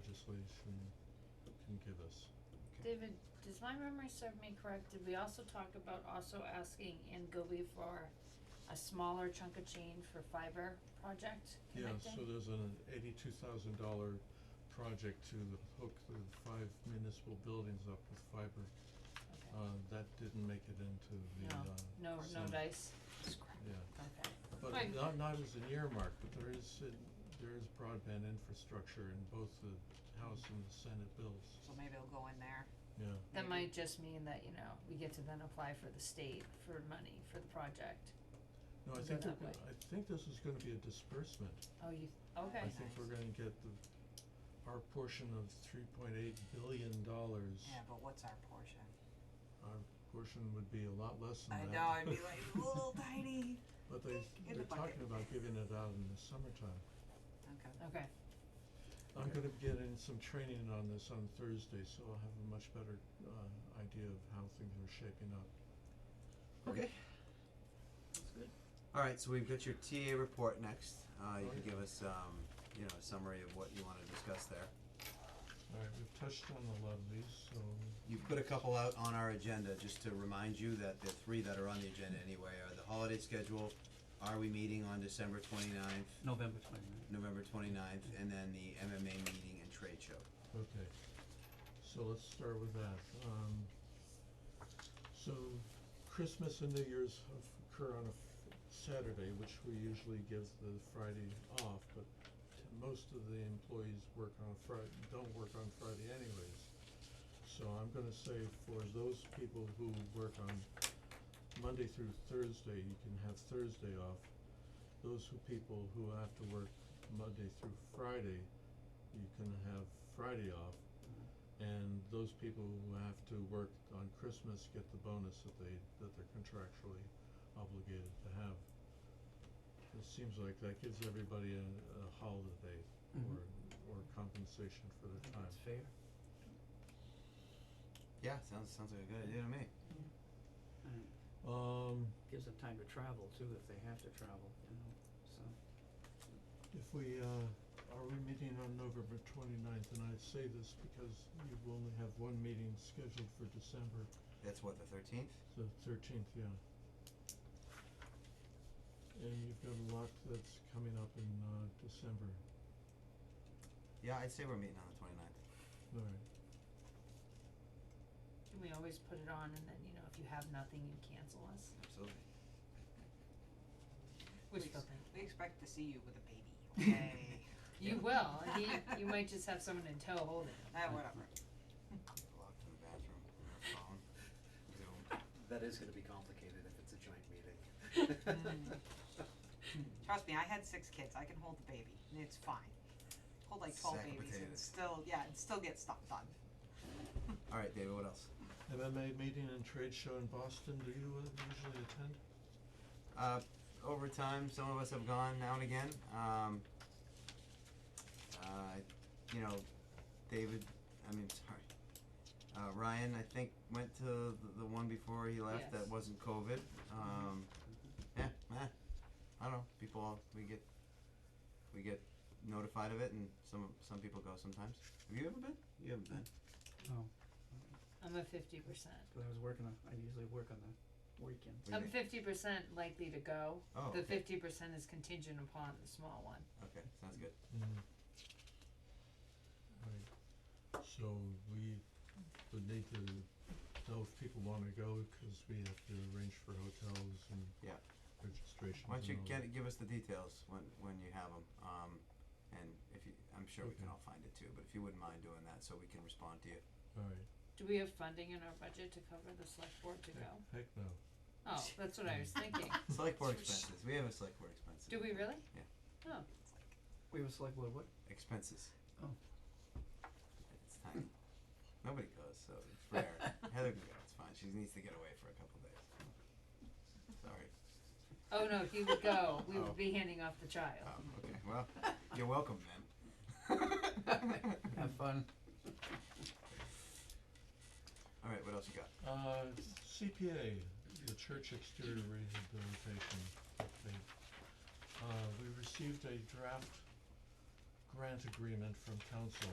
legislation can give us. David, does my memory serve me correct? Did we also talk about also asking Angobi for a smaller chunk of change for fiber project Yeah, connecting? so there's an eighty-two thousand dollar project to hook the five municipal buildings up with fiber. Okay. Uh, that didn't make it into the, uh, No, no so- dice, yeah. okay. But Fine. not, not as an earmark, but there is, in- there is broadband infrastructure in both the House and the Senate bills, So maybe it'll go in there. yeah. That might Maybe. just mean that, you know, we get to then apply for the state for money for the project. No, I Is think, it we're that go- I think this is gonna be a disbursement. Oh, you, okay, I think we're gonna get the, our portion of three point eight billion dollars. Yeah, but what's our portion? Our portion would be a lot less I than that. know, I'd be like, little tiny. But they, in they're the bucket. talking about giving it out in the summertime. Okay. okay, I'm gonna get in some training on this on Thursday, so I'll have a much better, uh, idea of how things are shaping up. Okay. That's good. All right, so we've got your TA report next. Uh, you Oh, can yeah. give us, um, you know, a summary of what you want to discuss there. Alright, we've touched on a lot of these, so, You put a couple out on our agenda, just to remind you that the three that are on the agenda anyway are the holiday schedule, are we meeting on December 29th, November twenty-ninth. November 29th, and then the MMA meeting and trade show. okay. So let's start with that. Um, so Christmas and New Year's of- occur on a f- Saturday, which we usually give the Friday off, but t- most of the employees work on Fri- don't work on Friday anyways. So I'm gonna say for those people who work on Monday through Thursday, you can have Thursday off. Those who people who have to work Monday through Friday, you can have Friday off. And those people who have to work on Christmas get the bonus that they, that they're contractually obligated to have. It seems like that gives everybody a, a holiday or, or compensation for their time. fair. Yeah, sounds, sounds like a good idea to me. Um, Gives them time to travel too, if they have to travel, you know, so. If we, uh, are we meeting on November twenty-ninth, and I say this because you only have one meeting scheduled for December, That's what, the 13th? the thirteenth, yeah. And you've got a lot that's coming up in, uh, December, Yeah, I'd say we're meeting on the 29th. alright. can we always put it on and then, you know, if you have nothing, you cancel us, Absolutely. which Please. they'll think. We expect to see you with a baby, okay? You will, I mean, you might just have someone in tow holding it. Ah, whatever. Locked in the bathroom, on our phone, Zoom. That is gonna be complicated if it's a joint meeting. Trust me, I had six kids, I can hold the baby, and it's fine. Hold like twelve Sack of babies and potatoes. still, yeah, and still get stuff done. All right, David, what else? MMA meeting and trade show in Boston, do you uh, usually attend? Uh, over time, some of us have gone now and again. Um, uh, you know, David, I mean, sorry. Uh, Ryan, I think, went to the, the one before he left that Yes. wasn't COVID. Um, yeah, eh, I don't know. People, all- we get, we get notified of it, and some some people go sometimes. Have you ever been? You haven't been. Oh, I'm a fifty percent. cause I was working on, I usually work on the weekends. What do you I'm think? fifty percent likely to go. Oh, Um, The okay. fifty percent is contingent upon the small one. Okay, sounds good. Mm. Right, so we would need to know if people wanna go, cause we have to arrange for hotels and Yeah. registrations Why don't you and all get, give us the details when, when you have them, um, and if you, I'm sure we can Okay. all find it too, but if you wouldn't mind doing that, so we can respond to you. that. Alright, Do we have funding in our budget to cover the select board to go? heck, heck no. Oh, that's what I was thinking. Select board expenses, we have a select board expenses. Do we really? Yeah. Oh, We were select board, what? Expenses. Oh. It's tiny, nobody goes, so it's rare, Heather can go, it's fine, she needs to get away for a couple days. Sorry, oh no, he would go. We Oh. would be handing off the child. um, okay, well, you're welcome then. Have fun. Alright, what else you got? Uh, CPA, the church exterior rehabilitation update. Uh, we received a draft grant agreement from council